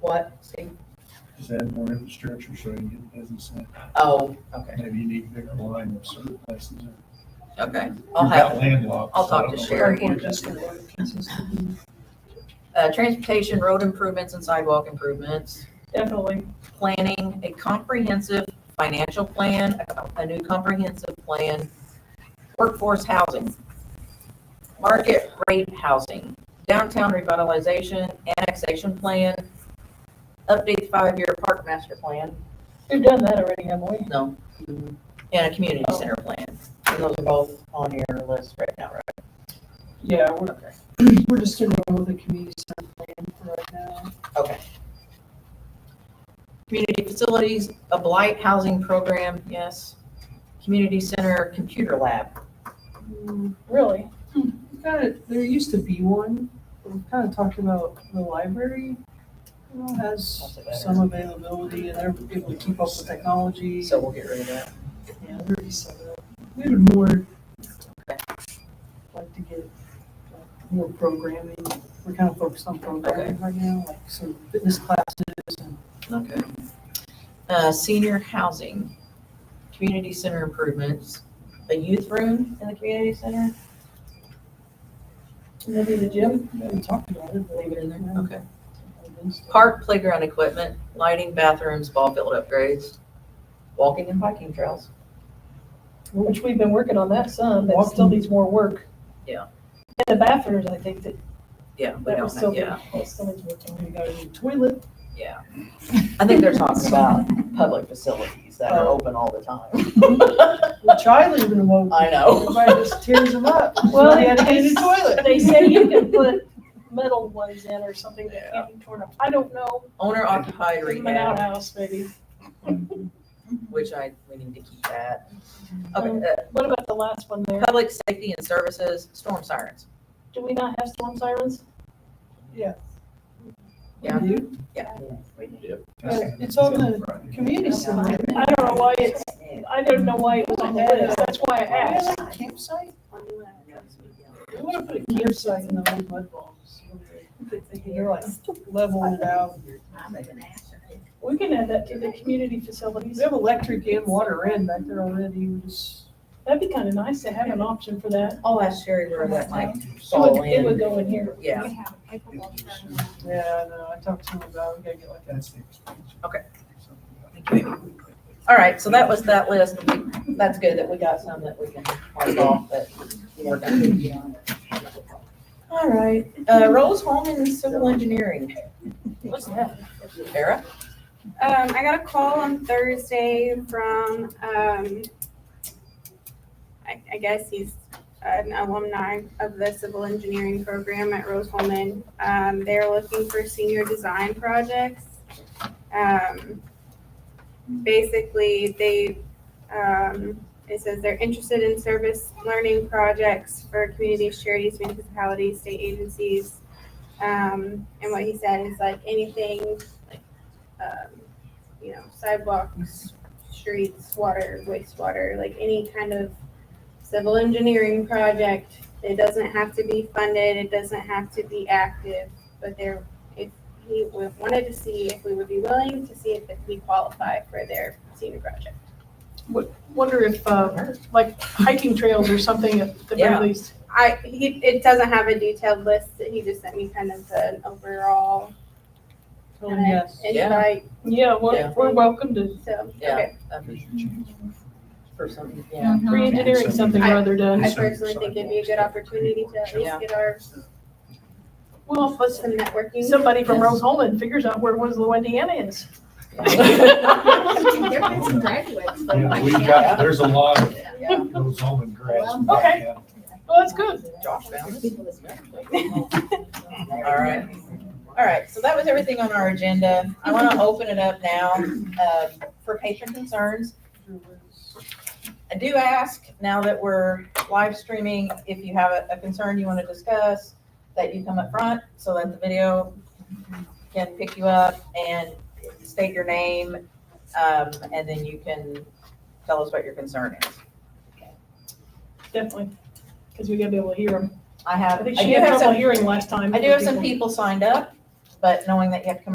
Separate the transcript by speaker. Speaker 1: what, Steve?
Speaker 2: Just add more infrastructure so you get business in.
Speaker 1: Oh, okay,
Speaker 2: Maybe you need bigger line of certain places.
Speaker 1: okay.
Speaker 2: We've
Speaker 1: I'll
Speaker 2: got
Speaker 1: have,
Speaker 2: landlocked,
Speaker 1: I'll
Speaker 2: so
Speaker 1: talk
Speaker 2: I
Speaker 1: to
Speaker 2: don't know
Speaker 1: Sherry.
Speaker 2: where we're
Speaker 1: uh, transportation, road improvements and sidewalk improvements.
Speaker 3: Definitely.
Speaker 1: planning a comprehensive financial plan, a- a new comprehensive plan, workforce housing, market rate housing, downtown revitalization, annexation plan, update five-year park master plan,
Speaker 3: We've done that already, haven't we?
Speaker 1: no, and a community center plan. And those are both on your list right now, right?
Speaker 3: Yeah, we're,
Speaker 1: Okay.
Speaker 3: we're just in roll with the community center plan for right now.
Speaker 1: Community facilities, a blight housing program, yes. Community center, computer lab,
Speaker 3: Hmm, Really? Hmm, We've got it, there used to be one, but we've kind of talked about the library. you know, Has some availability and they're able to keep up with technology.
Speaker 1: so we'll get rid of that.
Speaker 3: Yeah, there is some of that. We would more like to get like, more programming. We're kind of focused on programming right now, like some fitness classes and
Speaker 1: Okay. Uh, senior housing, community center improvements, a youth room in the community center,
Speaker 3: maybe the gym. We haven't talked about it, but
Speaker 1: leave it in there,
Speaker 3: Yeah.
Speaker 1: okay. Park playground equipment, lighting, bathrooms, ball field upgrades, walking and biking trails.
Speaker 4: Which we've been working on that some, that still
Speaker 3: Walking.
Speaker 4: needs more work.
Speaker 1: Yeah.
Speaker 4: And the bathrooms, I think that,
Speaker 1: Yeah, we
Speaker 4: that was
Speaker 1: don't have, yeah,
Speaker 4: still, that still needs work.
Speaker 3: And we got a new toilet.
Speaker 1: yeah. I think they're talking about public facilities that are
Speaker 3: Oh.
Speaker 1: open all the time.
Speaker 3: Which I live in a mobile.
Speaker 1: I know.
Speaker 3: Everybody just tears them up.
Speaker 4: Well,
Speaker 3: They had to
Speaker 4: they-
Speaker 3: get a new toilet.
Speaker 4: They say you can put metal ones in or something that can't be torn up. I don't know,
Speaker 1: Owner occupied
Speaker 4: Give 'em an
Speaker 1: rehab,
Speaker 4: outhouse maybe.
Speaker 1: which I, we need to keep that.
Speaker 4: Mm-hmm.
Speaker 1: Okay, uh,
Speaker 4: What about the last one there?
Speaker 1: public safety and services, storm sirens.
Speaker 4: Do we not have storm sirens?
Speaker 3: Yeah.
Speaker 1: Yeah.
Speaker 3: You?
Speaker 2: at.
Speaker 3: It's on the
Speaker 2: Right.
Speaker 3: Community center.
Speaker 4: I don't know why it's, I don't know why it was on the list, that's why I
Speaker 3: Yeah,
Speaker 4: asked.
Speaker 3: like a campsite. We want to put a campsite in the old mud balls. They're like leveled out.
Speaker 4: We can add that to the community facilities.
Speaker 3: We have electric and water in back there already. We just,
Speaker 4: That'd be kind of nice to have an option for that.
Speaker 1: I'll ask Sherry where that might
Speaker 4: It would,
Speaker 1: fall
Speaker 4: it would
Speaker 1: in.
Speaker 4: go in here.
Speaker 1: Yeah,
Speaker 3: yeah, no, I talked to him about, we gotta get like
Speaker 2: That's the expansion.
Speaker 1: Okay. all right, so that was that list. That's good that we got some that we can mark off that we're done. All right, uh, Rose Home and Civil Engineering.
Speaker 4: What's that?
Speaker 1: Tara?
Speaker 5: Um, I got a call on Thursday from, um, I, I guess he's an alumni of the civil engineering program at Rose Holman. Um, they're looking for senior design projects. Um, basically, they, um, it says they're interested in service learning projects for communities, charities, municipalities, state agencies. Um, and what he said is like anything um, you know, sidewalks, streets, water, wastewater, like any kind of civil engineering project. It doesn't have to be funded, it doesn't have to be active, but there, if he would- wanted to see if we would be willing to see if we qualify for their senior project.
Speaker 4: Wonder if, uh, like hiking trails or something at the
Speaker 1: Yeah.
Speaker 4: very least.
Speaker 5: I, he, it doesn't have a detailed list, he just sent me kind of an overall
Speaker 3: Oh, yes.
Speaker 1: Yeah.
Speaker 5: invite,
Speaker 4: Yeah, we're,
Speaker 1: Yeah.
Speaker 4: we're welcome to
Speaker 5: so,
Speaker 1: Yeah.
Speaker 5: okay.
Speaker 1: that'd be Um, For some, yeah.
Speaker 4: re-engineering something or other done.
Speaker 5: I personally think it'd be a good opportunity to at
Speaker 1: Yeah.
Speaker 5: least get our,
Speaker 4: Well, if
Speaker 5: some networking.
Speaker 4: somebody from Rose Holman figures out where Winslow, Indiana is.
Speaker 6: There have been some graduates, but
Speaker 2: Yeah,
Speaker 6: like,
Speaker 2: we've
Speaker 6: yeah.
Speaker 2: got, there's a lot of
Speaker 1: Yeah.
Speaker 2: those home and grass.
Speaker 4: Okay. Well, that's good.
Speaker 1: Josh found it.
Speaker 6: People that's graduated.
Speaker 1: All right. All right, so that was everything on our agenda. I want to open it up now um, for patron concerns. I do ask, now that we're live streaming, if you have a a concern you want to discuss, that you come up front so that the video can pick you up and state your name, um, and then you can tell us what your concern is.
Speaker 4: Definitely. Because we gotta be able to hear them.
Speaker 1: I
Speaker 4: I
Speaker 1: have, I
Speaker 4: think
Speaker 1: do
Speaker 4: she had
Speaker 1: have
Speaker 4: trouble
Speaker 1: some,
Speaker 4: hearing last time.
Speaker 1: I do have some people signed up, but knowing that you have to come